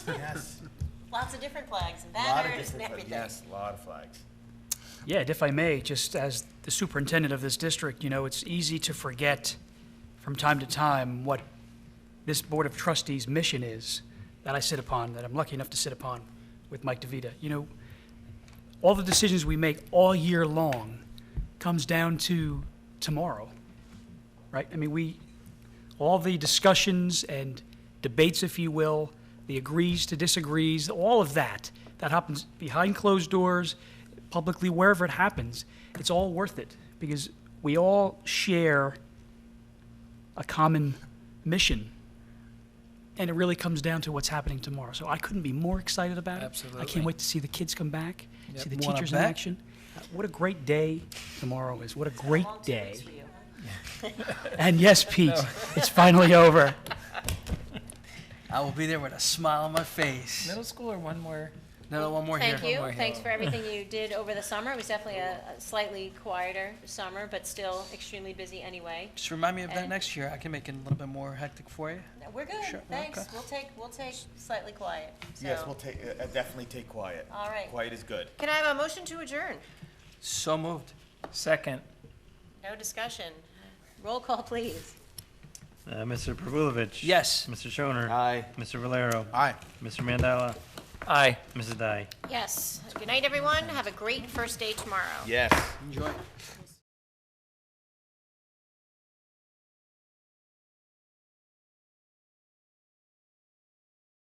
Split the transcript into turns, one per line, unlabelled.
Yes.
Lots of different flags and
Lot of
banners and
different flags.
everything.
Yes, a lot of flags.
Yeah, and if I may, just as the superintendent of this district, you know, it's easy to forget from time to time what this Board of Trustees' mission is that I sit upon, that I'm lucky enough to sit upon with Mike DeVita. You know, all the decisions we make all year long comes down to tomorrow, right? I mean, we, all the discussions and debates, if you will, the agrees to disagrees, all of that, that happens behind closed doors, publicly, wherever it happens, it's all worth it because we all share a common mission. And it really comes down to what's happening tomorrow. So I couldn't be more excited about it. I
Absolutely.
can't wait to see the kids come back, see the
Wanna
teachers in
bet?
action. Uh, What a great day tomorrow is. What a great
Long two
day.
weeks for you.
And yes, Pete, it's finally over.
I will be there with a smile on my face.
Middle school or one more?
No, no, one more here.
Thank you.
One more
Thanks
here.
for everything you did over the summer. It was definitely a a slightly quieter summer, but still extremely busy anyway.
Just remind me of that
And-
next year. I can make it a little bit more hectic for you.
No, We're
Sure,
good. Thanks.
okay.
We'll take, we'll take slightly quiet.
Yes,
So-
we'll take, uh, definitely take quiet.
All right.
Quiet is good.
Can I have a motion to adjourn?
So moved.
Second.
No discussion. Roll call, please.
Uh, Mr. Pervulovich.
Yes.
Mr. Shoner.
Aye.
Mr. Valero.
Aye.
Mr. Mandela.
Aye.
Mrs. Dai.
Yes. Good night, everyone. Have a great first day tomorrow.
Yes.
Enjoy.